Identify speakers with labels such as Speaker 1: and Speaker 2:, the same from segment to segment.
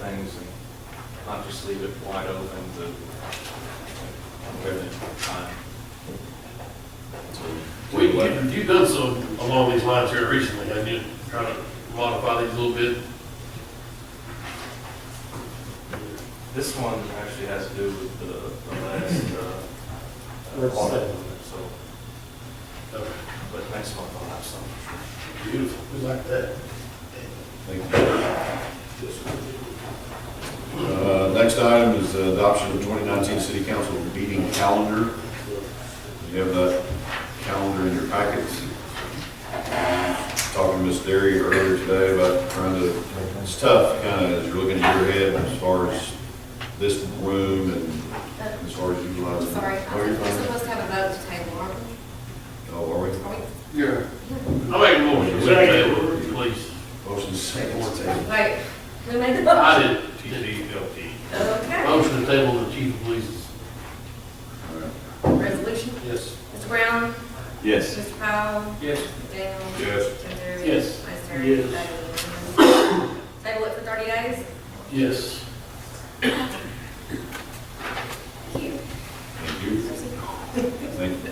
Speaker 1: things and not just leave it wide open to whatever time.
Speaker 2: We, you- you've done some along these lines here recently, and you try to modify these a little bit.
Speaker 1: This one actually has to do with the, the last, uh, uh,
Speaker 3: Let's
Speaker 1: audit,
Speaker 3: see.
Speaker 1: so,
Speaker 2: Okay,
Speaker 1: but next month I'll have some.
Speaker 2: Beautiful, we like that.
Speaker 4: Uh, Next item is uh, adoption of 2019 city council meeting calendar. You have that calendar in your packets. Talking to Ms. Derry earlier today about trying to, it's tough, kind of, as you're looking at your head as far as this room and
Speaker 5: I'm
Speaker 4: as far as utilizing.
Speaker 5: sorry,
Speaker 4: Oh, you're
Speaker 5: I'm- we're
Speaker 4: fine.
Speaker 5: supposed to have a vote to table, aren't we?
Speaker 4: Oh, are we?
Speaker 5: Are
Speaker 2: I make a motion, we table, it, please.
Speaker 4: Motion second.
Speaker 5: we? Wait, who made the
Speaker 2: I
Speaker 5: motion?
Speaker 2: did,
Speaker 5: Okay.
Speaker 2: motion to table the chief of police.
Speaker 4: All right.
Speaker 5: Resolution,
Speaker 2: Yes.
Speaker 5: Mr. Brown?
Speaker 6: Yes.
Speaker 5: Mr. Powell?
Speaker 2: Yes.
Speaker 5: McDaniel?
Speaker 4: Yes.
Speaker 5: Jim Derry?
Speaker 2: Yes.
Speaker 5: Vice Chair?
Speaker 3: Yes.
Speaker 5: David. Table it for thirty days?
Speaker 2: Yes.
Speaker 5: Thank you.
Speaker 4: Thank you. Thank you.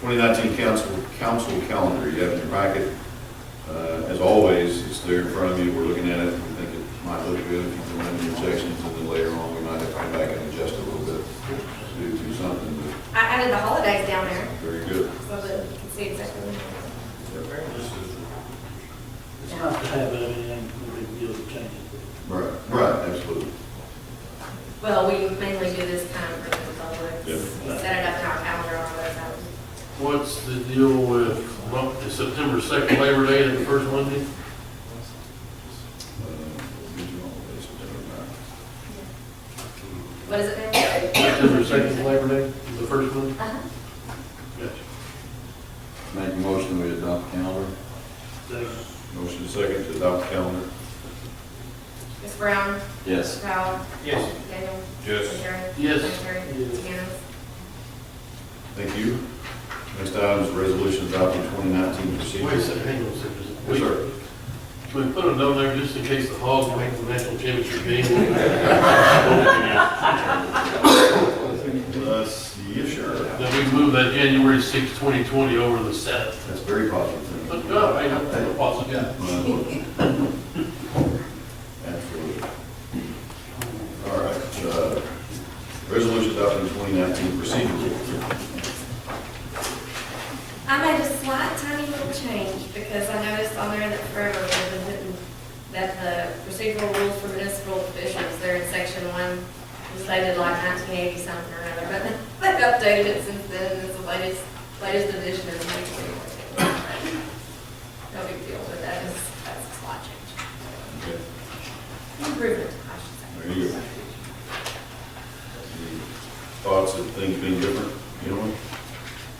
Speaker 4: 2019 council, council calendar, you have in your packet. Uh, As always, it's there in front of you, we're looking at it, we think it might look good if you can run your sections, and then later on, we might have to come back and adjust a little bit, do, do something, but
Speaker 5: I added the holidays down there,
Speaker 4: very good.
Speaker 5: so that you can see exactly.
Speaker 3: It's not to have anything, no big deal to change it.
Speaker 4: Right, right, absolutely.
Speaker 5: Well, we mainly do this kind of for the public.
Speaker 4: Yeah.
Speaker 5: We set it up in our calendar on the
Speaker 2: What's the deal with, well, the September second Labor Day and the first Monday?
Speaker 4: Uh, September
Speaker 5: What is it now?
Speaker 2: September second Labor Day, the first Monday?
Speaker 5: Uh-huh.
Speaker 2: Gotcha.
Speaker 4: 9th. Make a motion, we adopt calendar. Motion second to adopt calendar.
Speaker 5: Mr. Brown?
Speaker 6: Yes.
Speaker 5: Mr. Powell?
Speaker 2: Yes.
Speaker 5: Daniel?
Speaker 4: Yes.
Speaker 2: Yes.
Speaker 4: Thank you. Next item is resolution adopting 2019 procedure.
Speaker 2: Wait a second, hang on a second.
Speaker 4: Yes, sir.
Speaker 2: Can we put a note there just in case the Hogs make the national championship game?
Speaker 4: Uh, yeah, sure.
Speaker 2: That we move that January sixth, twenty twenty over the seventh.
Speaker 4: That's very positive.
Speaker 2: But, no, I don't think it's possible.
Speaker 4: Absolutely. All right, uh, resolution adopting 2019 procedure.
Speaker 5: I made a slight tiny little change because I noticed on there that forever we've been putting that the procedural rules for municipal officials, they're in section one, was dated like nineteen eighty something or another, but they've updated it since then, and it's the latest, latest edition is nineteen eighty. No big deal, but that is, that's a slight change.
Speaker 4: Okay,
Speaker 5: Improvement, I
Speaker 4: There you go. Any Thoughts of things being different, you know?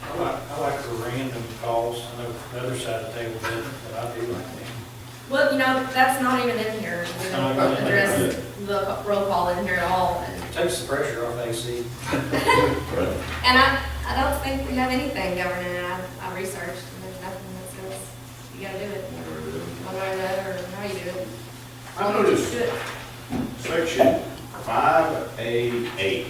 Speaker 7: I like, I like the random calls, I know the other side of the table did, but I do like them.
Speaker 5: should say. Well, you know, that's not even in here. We don't
Speaker 7: Not even in here.
Speaker 5: address the roll call in here at all.
Speaker 7: Takes the pressure off AC.
Speaker 4: Right.
Speaker 5: And I, I don't think we have anything governing it. I, I researched and there's nothing that says you gotta do it one way or the other or how you do it.
Speaker 8: I noticed
Speaker 5: Good.
Speaker 8: section five A eight.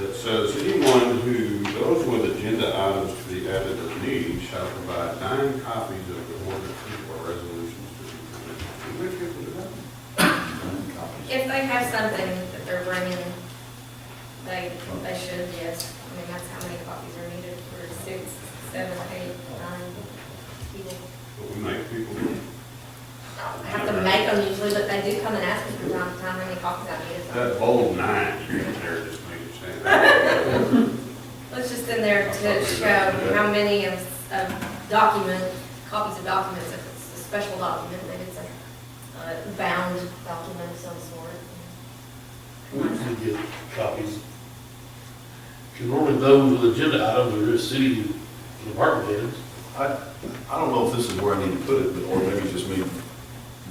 Speaker 8: That says anyone who goes with agenda items to be added at meeting shall provide nine copies of the ordinance or resolutions to be presented. Do we have people do that?
Speaker 5: If they have something that they're bringing, they, they should, yes. I mean, that's how many copies are needed for six, seven, eight, nine people.
Speaker 8: But we make people,
Speaker 5: I have to make them usually, but they do come and ask me from time to time how many copies I need. So
Speaker 8: that bold nine, you can there just make it stand.
Speaker 5: It's just in there to show how many of, of document, copies of documents, if it's a special document, then it's a uh, bound document of some sort.
Speaker 2: We usually get copies. Because normally those with agenda items are just city department heads.
Speaker 4: I, I don't know if this is where I need to put it, but, or maybe just me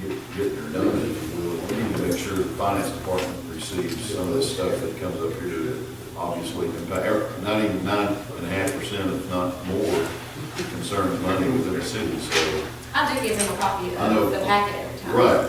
Speaker 4: get, get there done. We need to make sure the finance department receives some of this stuff that comes up here to obviously impact, er, not even nine and a half percent, if not more, concerns money within the city, so.
Speaker 5: I do give them a copy
Speaker 4: I know.
Speaker 5: of the packet every time.
Speaker 4: Right,